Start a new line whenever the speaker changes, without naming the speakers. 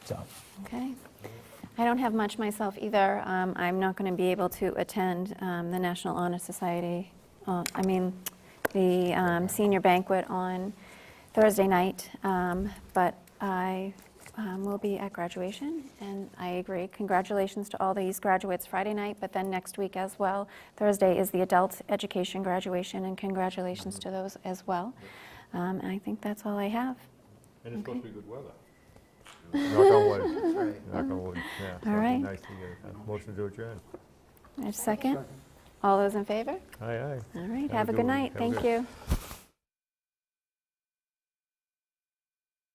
So,
Okay. I don't have much myself either. Um, I'm not going to be able to attend um, the National Honor Society, uh, I mean, the um, senior banquet on Thursday night, um, but I um, will be at graduation, and I agree. Congratulations to all these graduates Friday night, but then next week as well. Thursday is the adult education graduation, and congratulations to those as well. Um, And I think that's all I have.
And it's supposed to be good weather.
Knock on wood. Knock on wood, yeah. so it'd be
right.
nice to get a Motion to adjourn.
A second? All those in favor?
Aye, aye.
All right, have a good night,
Have a
thank
good-
you.